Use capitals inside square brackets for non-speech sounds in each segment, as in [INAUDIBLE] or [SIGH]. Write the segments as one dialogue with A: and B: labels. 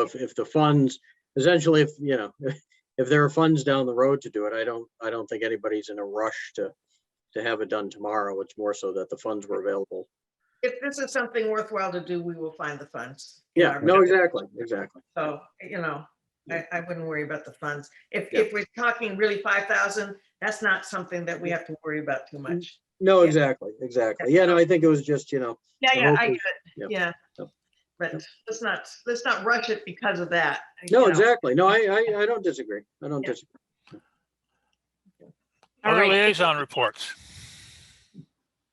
A: if, if the funds, essentially, if, you know, if there are funds down the road to do it, I don't, I don't think anybody's in a rush to, to have it done tomorrow. It's more so that the funds were available.
B: If this is something worthwhile to do, we will find the funds. in
A: Yeah,
B: our
A: no,
B: budget.
A: exactly, exactly.
B: So, you know, I, I wouldn't worry about the funds. If,
A: Yeah.
B: if we're talking really five thousand, that's not something that we have to worry about too much.
A: No,
B: Yeah.
A: exactly, exactly. Yeah, no, I think it was just, you know,
B: Yeah,
A: So
B: yeah, I get
A: yeah.
B: it, yeah.
A: Yep.
B: But let's not, let's not rush it because of that. you
A: no,
B: know.
A: exactly. No, I, I, I don't disagree. I don't
B: Yeah.
A: disagree.
B: All
C: Other
B: right,
C: liaison reports.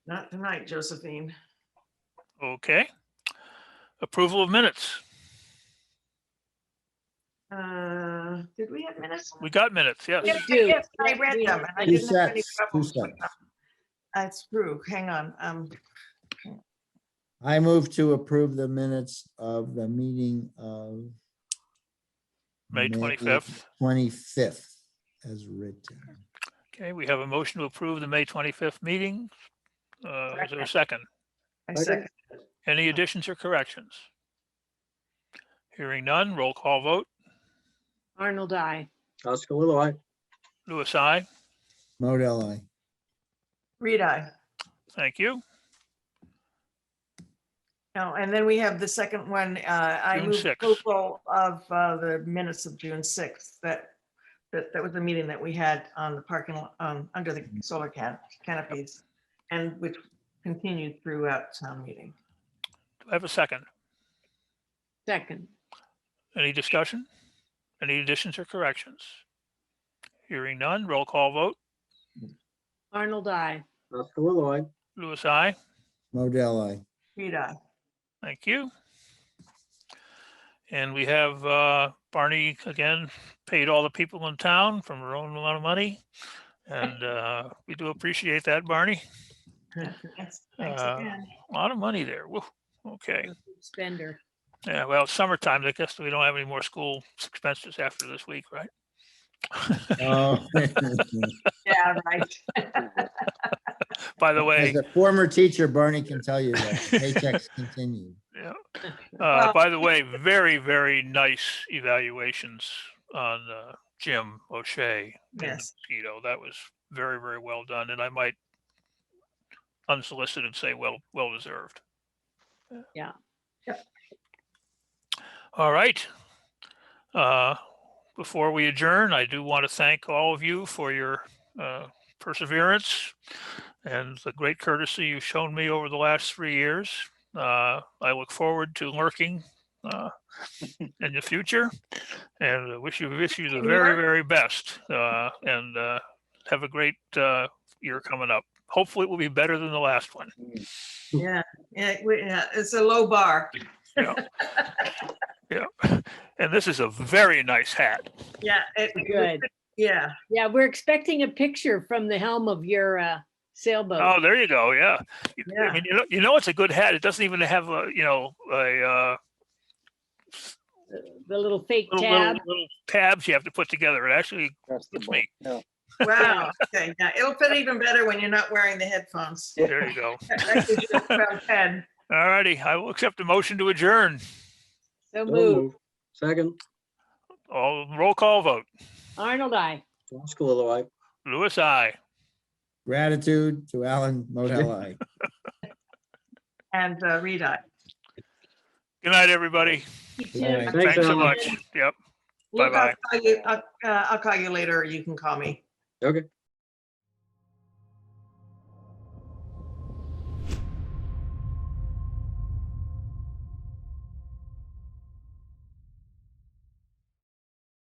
B: not tonight, Josephine.
C: Okay. Approval of minutes.
B: Uh, did we have minutes?
C: We got minutes, yes.
B: Yes,
D: do.
B: yes, I read them. and I
E: Two
B: didn't have any
E: sets, two
B: problems with
E: sets.
B: them. That's true. Hang on, um,
E: I move to approve the minutes of the meeting of.
C: May 25th.
E: Twenty-fifth as written.
C: Okay, we have a motion to approve the May 25th meeting. Uh, Is there a second?
B: I
A: Okay.
B: second.
C: Any additions or corrections? Hearing none, roll call vote.
D: Arnold, I.
A: Oscar Lilo, I,
C: Louis, I.
E: Modell, I.
B: Read I.
C: Thank you.
B: No, and then we have the second one, uh, I
C: June
B: move
C: 6th.
B: approval of, uh, the minutes of June sixth, that, that, that was the meeting that we had on the parking, lo- um, under the
C: Mm-hmm.
B: solar can, canopies, and which continued throughout town meeting.
C: Do I have a second?
D: Second.
C: Any discussion? Any additions or corrections? Hearing none, roll call vote.
D: Arnold, I.
A: Oscar Lilo, I,
C: Louis, I.
E: Modell, I.
B: Read I.
C: Thank you. And we have uh, Barney again, paid all the people in town from her own amount of money. And uh, we do appreciate that, Barney.
B: Thanks thanks
C: Uh,
B: again.
C: A lot of money there. Woo. Okay.
D: Spender.
C: Yeah, well, it's summertime, I guess we don't have any more school expenses after this week, right?
E: Oh.
B: Yeah, right.
C: By the way,
E: As a former teacher, Barney can tell you that paychecks [LAUGHS] continue.
C: Uh,
B: Well-
C: by the way, very, very nice evaluations on uh, Jim O'Shea. and [LAUGHS]
B: Yes.
C: Mosquito. That was very, very well done, and I might unsolicited say, well, well deserved.
D: Yeah.
B: Yep.
C: All right. Uh, Before we adjourn, I do want to thank all of you for your uh, perseverance and the great courtesy you've shown me over the last three years. Uh, I look forward to lurking uh, in the future and I wish you, wish you the very, very best. uh, And uh, have a great uh, year coming up. Hopefully it will be better than the last one.
B: Yeah, yeah, we- yeah, it's a low bar.
C: Yeah. And this is a very nice hat.
B: Yeah. it-
D: Good.
B: Yeah,
D: Yeah, we're expecting a picture from the helm of your uh,
C: Oh,
D: sailboat.
C: there you go. Yeah. You- I
B: Yeah.
C: mean, you know, you know, it's a good hat. It doesn't even have a, you know, a uh,
D: The little fake
C: little, little,
D: tab.
C: little tabs you have to put together. It actually fits me.
B: wow. Okay, yeah, it'll fit even better when you're not wearing the headphones.
C: There you go.
B: That gives you a crown head.
C: All righty. I will accept a motion to adjourn.
D: So
A: so
D: move.
A: moved. Second,
C: All roll call vote.
D: Arnold, I.
A: Oscar Lilo, I.
C: Louis, I.
E: Gratitude to Alan Modell, I.
B: And uh, read I.
C: Good night, everybody.
D: You
E: Right.
D: too.
A: Thanks,
C: Thanks so
A: Alan.
C: much. Yep.
B: Luke, I'll
C: Bye-bye.
B: uh, call you- I'll uh, I'll call you later, or you can call me.
A: Okay,